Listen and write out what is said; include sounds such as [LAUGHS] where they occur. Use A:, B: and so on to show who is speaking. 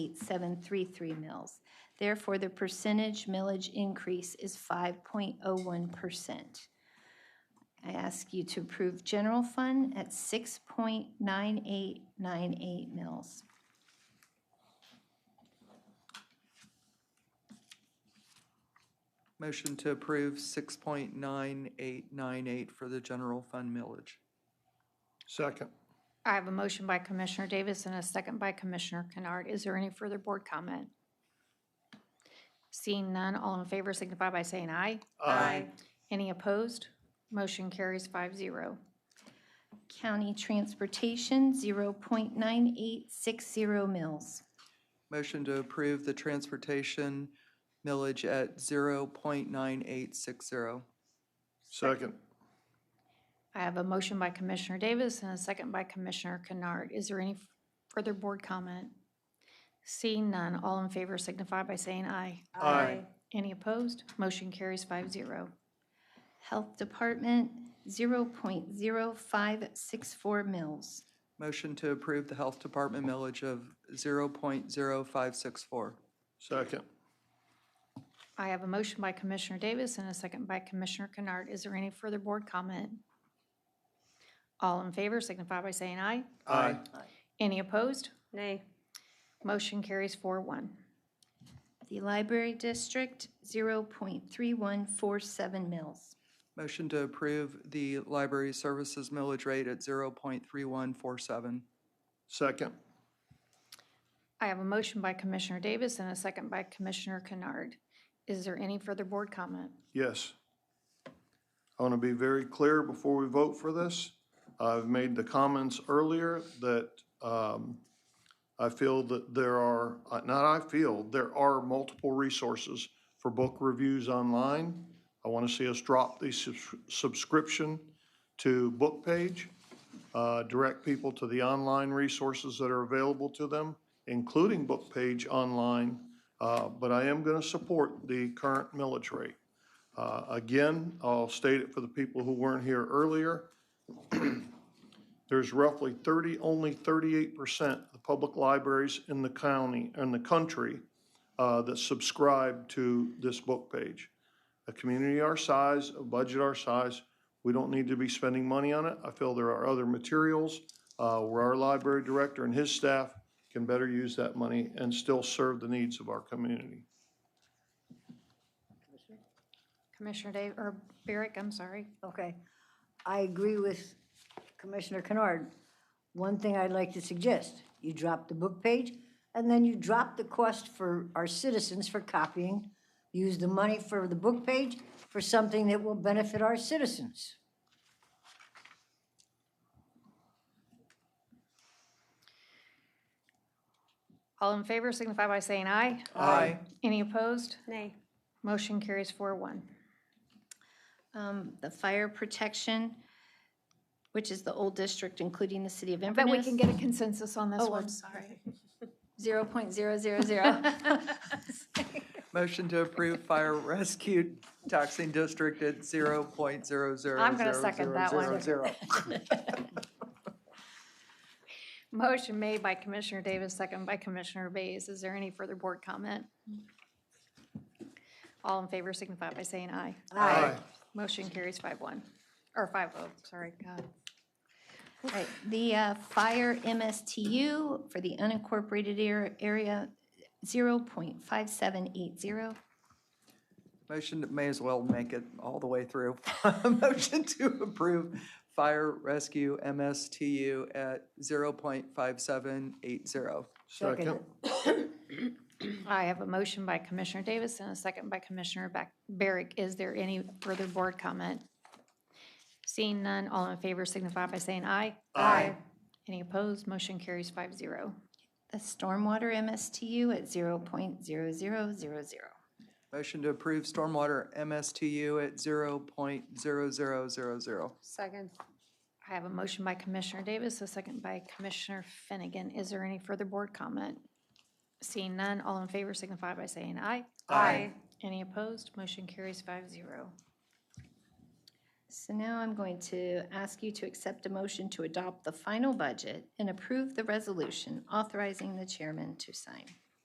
A: 8733 mills. Therefore, the percentage millage increase is 5.01%. I ask you to approve general fund at 6.9898 mills.
B: Motion to approve 6.9898 for the general fund millage.
C: Second.
D: I have a motion by Commissioner Davis and a second by Commissioner Kennard. Is there any further board comment? Seeing none, all in favor signify by saying aye. Any opposed? Motion carries five zero.
A: County transportation, 0.9860 mills.
B: Motion to approve the transportation millage at 0.9860.
C: Second.
D: I have a motion by Commissioner Davis and a second by Commissioner Kennard. Is there any further board comment? Seeing none, all in favor signify by saying aye.
C: Aye.
D: Any opposed? Motion carries five zero.
A: Health department, 0.0564 mills.
B: Motion to approve the health department millage of 0.0564.
C: Second.
D: I have a motion by Commissioner Davis and a second by Commissioner Kennard. Is there any further board comment? All in favor signify by saying aye.
C: Aye.
D: Any opposed?
E: Nay.
D: Motion carries four one.
A: The library district, 0.3147 mills.
B: Motion to approve the library services millage rate at 0.3147.
C: Second.
D: I have a motion by Commissioner Davis and a second by Commissioner Kennard. Is there any further board comment?
C: Yes. I want to be very clear before we vote for this. I've made the comments earlier that um, I feel that there are, uh, not I feel, there are multiple resources for book reviews online. I want to see us drop the subs- subscription to Book Page, uh, direct people to the online resources that are available to them, including Book Page Online. Uh, But I am going to support the current millage rate. Uh, Again, I'll state it for the people who weren't here earlier. [CLEARS THROAT] There's roughly 30, only 38% of the public libraries in the county, in the country, uh, that subscribe to this book page. A community our size, a budget our size, we don't need to be spending money on it. I feel there are other materials uh, where our library director and his staff can better use that money and still serve the needs of our community.
D: Commissioner Dave, or Barrick, I'm sorry.
F: Okay. I agree with Commissioner Kennard. One thing I'd like to suggest, you drop the book page, and then you drop the cost for our citizens for copying. Use the money for the book page for something that will benefit our citizens.
D: All in favor signify by saying aye.
B: Aye.
D: Any opposed?
E: Nay.
D: Motion carries four one.
A: Um, The fire protection, which is the old district, including the city of
D: But
A: Inverness.
D: we can get a consensus on this
A: Oh,
D: one.
A: I'm sorry. [LAUGHS] 0.000.
B: Motion to approve fire [LAUGHS] rescue taxing district at 0.0000000.
D: I'm gonna second that one. Motion made by Commissioner Davis, second by Commissioner Bays. Is there any further board comment? All in favor signify by saying aye.
C: Aye.
D: Motion carries five one, or five oh, sorry, God.
A: Right, the uh, fire MSTU for the unincorporated ar- area, 0.5780.
B: Motion, to- may as well make it all the way through. [LAUGHS] Motion to approve fire rescue MSTU at 0.5780.
C: Second.
D: I have a motion by Commissioner Davis and a second by Commissioner Bac- Barrick. Is there any further board comment? Seeing none, all in favor signify by saying aye. Aye. Any opposed? Motion carries five zero.
A: The stormwater MSTU at 0.0000.
B: Motion to approve stormwater MSTU at 0.0000.
E: Second.
D: I have a motion by Commissioner Davis, a second by Commissioner Finnegan. Is there any further board comment? Seeing none, all in favor signify by saying aye.
E: Aye.
D: Any opposed? Motion carries five zero.
A: So now I'm going to ask you to accept a motion to adopt the final budget and approve the resolution authorizing the chairman to sign.